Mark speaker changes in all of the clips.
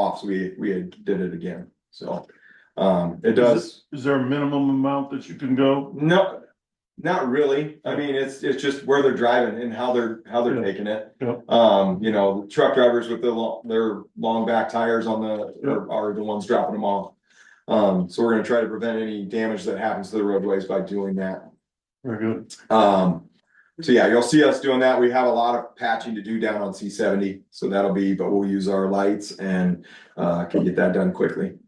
Speaker 1: offs, we, we had did it again, so. Um, it does,
Speaker 2: Is there a minimum amount that you can go?
Speaker 1: no, not really, I mean, it's, it's just where they're driving and how they're, how they're
Speaker 2: Yeah.
Speaker 1: taking it.
Speaker 2: Yeah.
Speaker 1: Um, you know, truck drivers with their long, their long back tires on the,
Speaker 2: Yeah.
Speaker 1: are- are the ones dropping them off. Um, so we're gonna try to prevent any damage that happens to the roadways by doing that.
Speaker 2: Very good.
Speaker 1: Um, so yeah, you'll see us doing that. We have a lot of patching to do down on C seventy, so that'll be, but we'll use our lights and uh can get that done quickly.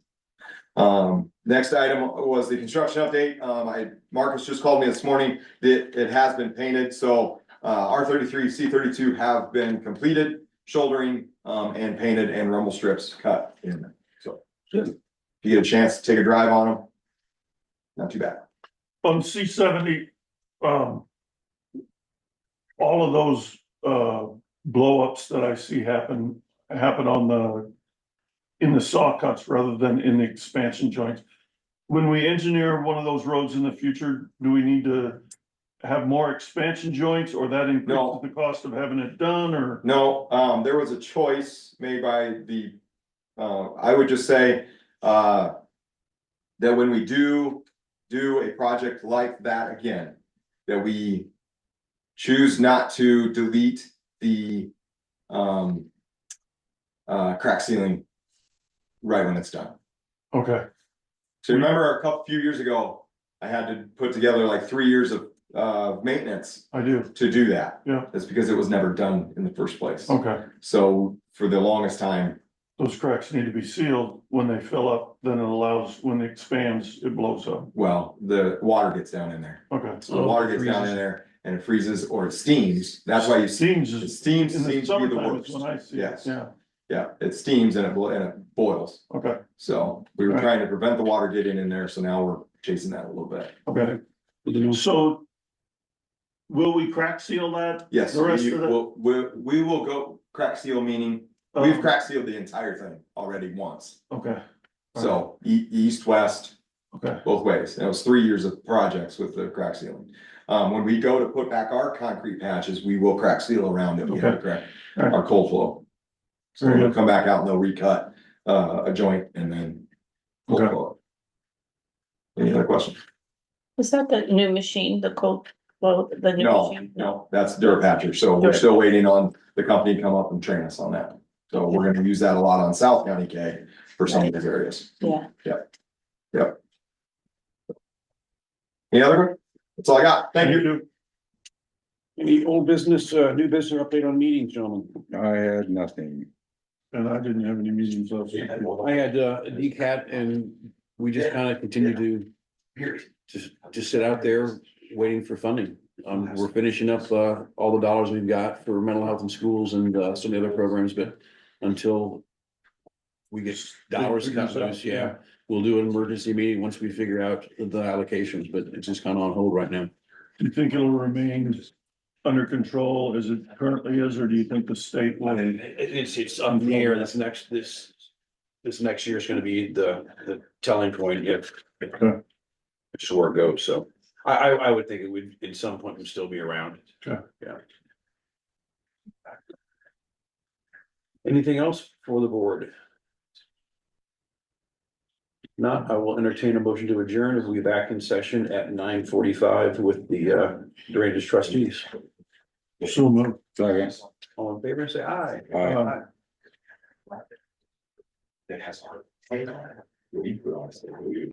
Speaker 1: Um, next item was the construction update. Um, I, Marcus just called me this morning. It, it has been painted, so uh, R thirty-three, C thirty-two have been completed, shouldering, um, and painted and rumble strips cut in, so. If you get a chance to take a drive on them, not too bad.
Speaker 2: On C seventy, um. All of those uh blowups that I see happen, happen on the. In the saw cuts rather than in the expansion joints. When we engineer one of those roads in the future, do we need to? Have more expansion joints or that
Speaker 1: No.
Speaker 2: increases the cost of having it done or?
Speaker 1: No, um, there was a choice made by the, uh, I would just say, uh. That when we do, do a project like that again, that we. Choose not to delete the, um. Uh, crack ceiling. Right when it's done.
Speaker 2: Okay,
Speaker 1: So remember a couple, few years ago, I had to put together like three years of, uh, maintenance
Speaker 2: I do.
Speaker 1: to do that.
Speaker 2: Yeah.
Speaker 1: That's because it was never done in the first place.
Speaker 2: Okay.
Speaker 1: So for the longest time,
Speaker 2: Those cracks need to be sealed. When they fill up, then it allows, when it expands, it blows up.
Speaker 1: well, the water gets down in there.
Speaker 2: Okay.
Speaker 1: So the water gets down in there and it freezes or it steams. That's why you see,
Speaker 2: Seems
Speaker 1: it
Speaker 2: is,
Speaker 1: steams
Speaker 2: in the
Speaker 1: seems to be the
Speaker 2: summertime is
Speaker 1: worst.
Speaker 2: when I see it.
Speaker 1: Yes.
Speaker 2: Yeah,
Speaker 1: Yeah, it steams and it, blo- and it boils.
Speaker 2: okay,
Speaker 1: So we were
Speaker 2: Right.
Speaker 1: trying to prevent the water getting in there. So now we're chasing that a little bit.
Speaker 2: okay. So will we crack seal that?
Speaker 1: Yes,
Speaker 2: The rest
Speaker 1: we
Speaker 2: of the-
Speaker 1: will, we, we will go crack seal, meaning
Speaker 2: Um,
Speaker 1: we've crack sealed the entire thing already once.
Speaker 2: Okay.
Speaker 1: So e- east, west,
Speaker 2: Okay,
Speaker 1: both ways. And it was three years of projects with the crack sealing. Um, when we go to put back our concrete patches, we will crack seal around it. We have to crack
Speaker 2: Alright.
Speaker 1: our cold flow. So
Speaker 2: Very
Speaker 1: we'll
Speaker 2: good.
Speaker 1: come back out and they'll recut, uh, a joint and then. cold
Speaker 2: Okay.
Speaker 1: flow it. Any other questions?
Speaker 3: Is that the new machine, the cold, well, the new
Speaker 1: No,
Speaker 3: machine?
Speaker 1: no, that's Durapatcher. So we're
Speaker 3: Dura-
Speaker 1: still waiting on the company to come up and train us on that. So we're gonna use that a lot on South County K for some of these areas.
Speaker 3: Yeah,
Speaker 1: Any other? one? That's all I got. Thank you.
Speaker 4: Any old business, uh, new business update on meetings, gentlemen?
Speaker 5: I had nothing.
Speaker 2: and I didn't have any meetings last week.
Speaker 4: I had, uh, a DCAT and we just kind of continue to just, just sit out there waiting for funding. Um, we're finishing up, uh, all the dollars we've got for mental health in schools and, uh, some of the other programs, but until we get dollars cut loose, yeah, we'll do an emergency meeting once we figure out the allocations, but it's just kind of on hold right now.
Speaker 2: Do you think it'll remain under control as it currently is, or do you think the state
Speaker 4: I
Speaker 2: will?
Speaker 4: mean, it- it's, it's up in the air, this next, this, this next year is gonna be the, the telling point if.
Speaker 2: Okay.
Speaker 4: Which is where it goes, so I, I, I would think it would, at some point, would still be around.
Speaker 2: Okay.
Speaker 4: Yeah. Anything else for the board? Not, I will entertain a motion to adjourn, and we'll be back in session at nine forty-five with the, uh, Drainage trustees.
Speaker 2: So moved.
Speaker 5: Second.
Speaker 4: All in favor, say aye.
Speaker 5: Aye.
Speaker 2: Uh,
Speaker 1: that has heart. We put on a state, we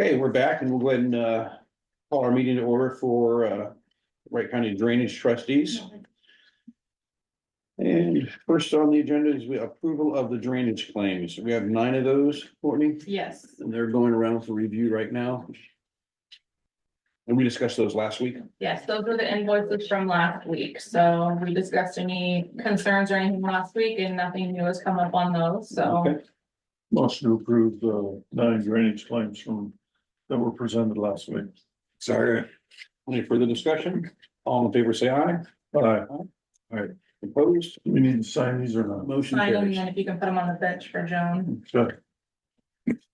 Speaker 4: Okay, we're back and we'll go ahead and uh call our meeting to order for uh Wright County Drainage Trustees. And first on the agenda is the approval of the drainage claims. We have nine of those, Courtney,
Speaker 6: Yes,
Speaker 4: and they're going around for review right now. And we discussed those last week.
Speaker 6: yes, those were the invoices from last week, so we discussed any concerns or anything last week and nothing new has come up on those, so.
Speaker 4: Okay.
Speaker 2: Motion to approve the nine drainage claims from, that were presented last week.
Speaker 5: Sorry.
Speaker 4: Any further discussion? All in favor, say aye.
Speaker 2: All right,
Speaker 4: Opposed?
Speaker 2: do we need to sign these or not?
Speaker 4: Motion
Speaker 6: Sign them, and
Speaker 4: carries.
Speaker 6: then if you can put them on the bench for Joan.
Speaker 2: Good.